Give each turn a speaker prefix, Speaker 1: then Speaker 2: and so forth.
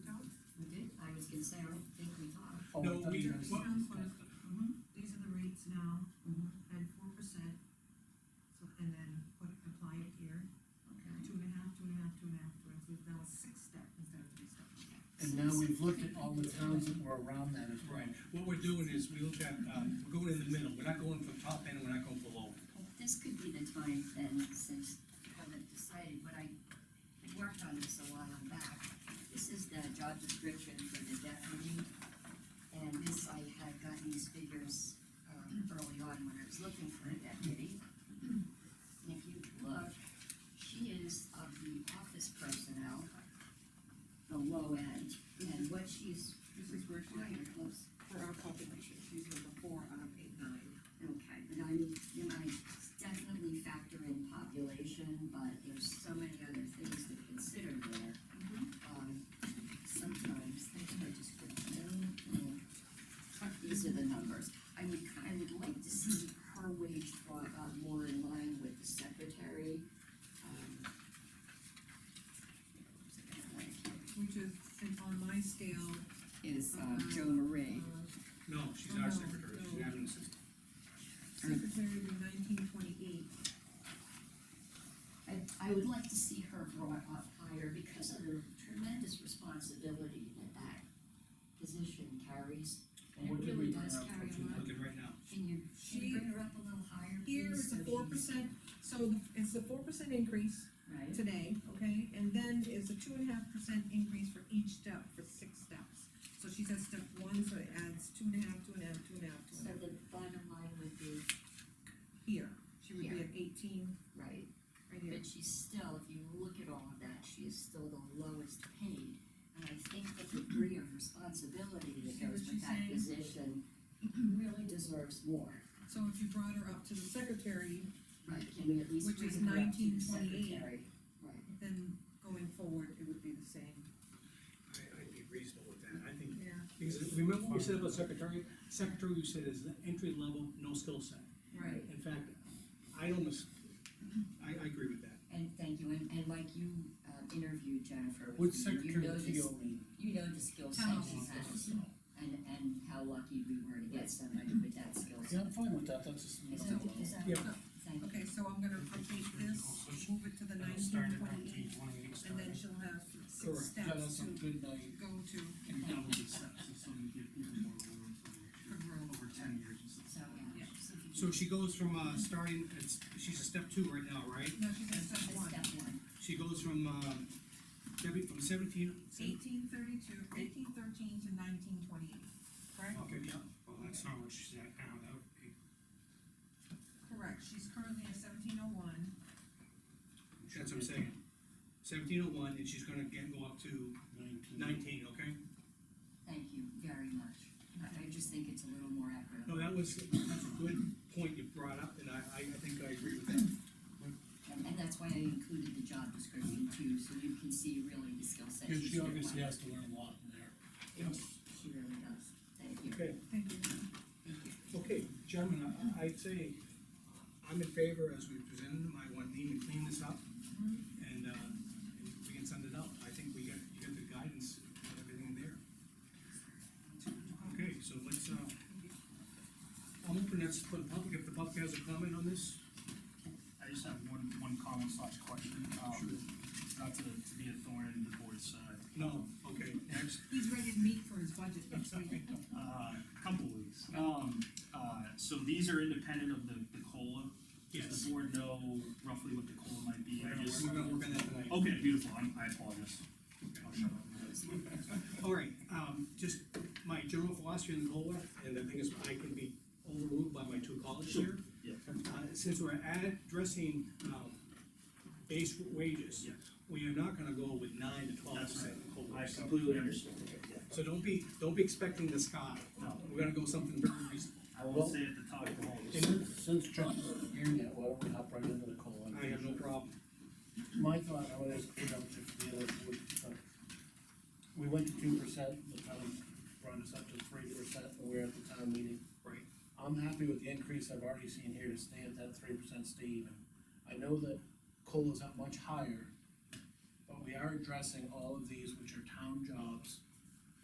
Speaker 1: can say, I don't think we are.
Speaker 2: Oh, I
Speaker 3: No,
Speaker 2: thought
Speaker 3: we,
Speaker 2: you
Speaker 3: what,
Speaker 2: guys-
Speaker 4: These are the rates now,
Speaker 1: Mhm.
Speaker 4: at four percent, so, and then put, apply it here,
Speaker 1: Okay.
Speaker 4: two and a half, two and a half, two and a half, two and a half, so that was six step instead of three step.
Speaker 2: And now we've looked at all the towns that were around that as well.
Speaker 3: right, what we're doing is, we look at, um, we're going in the middle, we're not going from top end, we're not going below.
Speaker 1: Well, This could be the time then, since you haven't decided, when I worked on this a while back, this is the job description for the deputy. And this, I had got these figures, um, early on when I was looking for a deputy. If you look, she is of the office personnel, the low end, and what she's
Speaker 4: This is where
Speaker 1: required was
Speaker 4: for our population, she's number four out of eight, nine.
Speaker 1: Okay, but I, you know, I definitely factor in population, but there's so many other things to consider there.
Speaker 4: Mm-hmm.
Speaker 1: Um, sometimes things are just, mm, these are the numbers. I would, ki- I would like to see her wage brought up more in line with the secretary, um.
Speaker 4: Which is, and on my scale,
Speaker 1: Is,
Speaker 4: uh, Jo
Speaker 1: Marie.
Speaker 4: uh,
Speaker 3: No, she's our
Speaker 4: No,
Speaker 3: secretary, she's
Speaker 4: no.
Speaker 3: not an assistant.
Speaker 4: secretary would be nineteen twenty-eight.
Speaker 1: I, I would like to see her brought up higher because of the tremendous responsibility that that position carries.
Speaker 2: And what did we
Speaker 1: It really
Speaker 2: bring
Speaker 1: does
Speaker 2: up?
Speaker 1: carry a
Speaker 2: What you
Speaker 1: lot.
Speaker 3: Look at right now,
Speaker 1: Can you, can
Speaker 4: She-
Speaker 1: you bring her up a little higher, please?
Speaker 4: Here is
Speaker 1: so
Speaker 4: a four
Speaker 1: she's-
Speaker 4: percent, so it's a four percent increase
Speaker 1: Right,
Speaker 4: today, okay? And then is a two and a half percent increase for each step, for six steps. So she says step one, so it adds two and a half, two and a half, two and a half, two and
Speaker 1: so
Speaker 4: a half.
Speaker 1: the bottom line would be,
Speaker 4: Here, she would be
Speaker 1: Here.
Speaker 4: at eighteen,
Speaker 1: right,
Speaker 4: right here.
Speaker 1: but she's still, if you look at all of that, she is still the lowest paid. And I think the degree of responsibility that
Speaker 4: See what
Speaker 1: goes with
Speaker 4: she's
Speaker 1: that
Speaker 4: saying?
Speaker 1: position really deserves more.
Speaker 4: So if you brought her up to the secretary,
Speaker 1: Right, can we at least
Speaker 4: Which is
Speaker 1: bring her up to the
Speaker 4: 1928.
Speaker 1: secretary? Right.
Speaker 4: then going forward, it would be the same.
Speaker 3: I, I'd be reasonable with that, I think.
Speaker 4: Yeah.
Speaker 5: Because remember what we said about secretary, secretary we said is the entry level, no skill set.
Speaker 1: Right,
Speaker 5: In fact,
Speaker 3: I almost, I, I agree with that.
Speaker 1: and thank you, and, and like you, uh, interviewed Jennifer.
Speaker 2: Which
Speaker 1: with me, you
Speaker 2: secretary
Speaker 1: know
Speaker 2: do you
Speaker 1: this-
Speaker 2: mean?
Speaker 1: You know the skill set
Speaker 4: Town
Speaker 1: she has,
Speaker 2: So,
Speaker 1: and, and how lucky we were to get somebody with that skill
Speaker 2: Yeah,
Speaker 1: set.
Speaker 2: I'm fine with that, that's just.
Speaker 1: Is
Speaker 2: middle
Speaker 1: that,
Speaker 2: of the
Speaker 1: is
Speaker 2: road.
Speaker 1: that,
Speaker 3: Yeah.
Speaker 1: thank you.
Speaker 4: Okay, so I'm gonna update this, move it to the
Speaker 6: It'll start
Speaker 4: nineteen
Speaker 6: at nineteen
Speaker 4: twenty-eight,
Speaker 6: twenty-eight,
Speaker 4: and
Speaker 6: starting.
Speaker 4: then she'll have
Speaker 3: Correct.
Speaker 4: six
Speaker 2: Yeah,
Speaker 4: steps
Speaker 2: that's
Speaker 4: to
Speaker 2: a good night.
Speaker 4: go to
Speaker 6: And double the steps, so we get even more room for
Speaker 4: for
Speaker 6: the-
Speaker 4: growth.
Speaker 6: over ten years. and stuff.
Speaker 1: So, yeah.
Speaker 4: Yeah.
Speaker 1: so if you
Speaker 3: So
Speaker 1: do-
Speaker 3: she goes from, uh, starting, it's, she's a step two right now, right?
Speaker 4: No, she's at
Speaker 1: that's
Speaker 4: step one.
Speaker 1: Step one,
Speaker 3: She goes from, um, Debbie, from seventeen.
Speaker 4: Eighteen thirty-two, eighteen thirteen to nineteen twenty-eight, correct?
Speaker 3: Okay, yeah,
Speaker 6: Well, that's not what she's at now, that would be.
Speaker 4: Correct, she's currently at seventeen oh one,
Speaker 3: that's what I'm saying. Seventeen oh one, and she's gonna get, go up to
Speaker 6: Nineteen.
Speaker 3: nineteen, okay?
Speaker 1: thank you very much. I, I just think it's a little more accurate.
Speaker 3: No, that was, that's a good point you brought up, and I, I, I think I agree with that.
Speaker 1: And, and that's why I included the job description too, so you can see really the skill set.
Speaker 2: Because
Speaker 1: she's
Speaker 2: she
Speaker 1: got.
Speaker 2: obviously has to learn a lot in there.
Speaker 1: She really does. Thank you.
Speaker 3: Okay,
Speaker 4: thank you.
Speaker 1: Thank you.
Speaker 3: okay, gentlemen, I, I'd say, I'm in favor as we presented them, I want Lean to clean this up, and, uh, and we can send it out. I think we got, you got the guidance, and everything there. Okay, so let's, uh, I'm open, that's for the public, if the public has a comment on this?
Speaker 6: I just have one, one comment slash question, um, not to, to be a thorn in the board's side.
Speaker 3: No, okay, next.
Speaker 4: He's ready to meet for his budget next week.
Speaker 6: Uh, couple weeks. Um, uh, so these are independent of the, the COLA. Does
Speaker 3: Yes.
Speaker 6: the board know roughly what the COLA might be?
Speaker 3: We're
Speaker 6: I
Speaker 3: gonna,
Speaker 6: just-
Speaker 3: we're gonna work on that tonight.
Speaker 6: Okay, beautiful, I'm- I apologize. I'll shut up.
Speaker 3: All right, um, just my general philosophy in the COLA, and the thing is, I can be overruled by my two colleagues here.
Speaker 6: Yeah.
Speaker 3: Uh, since we're addressing, um, base wages.
Speaker 6: Yeah.
Speaker 3: We are not gonna go with nine to twelve
Speaker 6: That's
Speaker 3: percent
Speaker 6: right.
Speaker 3: COLA.
Speaker 6: I completely understand.
Speaker 3: So don't be, don't be expecting the sky.
Speaker 6: No.
Speaker 3: We're gonna go something very reasonable.
Speaker 6: I won't say at the top of the hall.
Speaker 2: Since, since Chuck's here now, why don't we hop right into the call?
Speaker 3: I have no problem.
Speaker 2: My thought, I would ask, you know, if the other, would, uh, we went to two percent, the town brought us up to three percent, we were at the town meeting.
Speaker 3: Right.
Speaker 2: I'm happy with the increase I've already seen here to stay at that three percent, stay even. I know that COLA's up much higher, but we are addressing all of these, which are town jobs,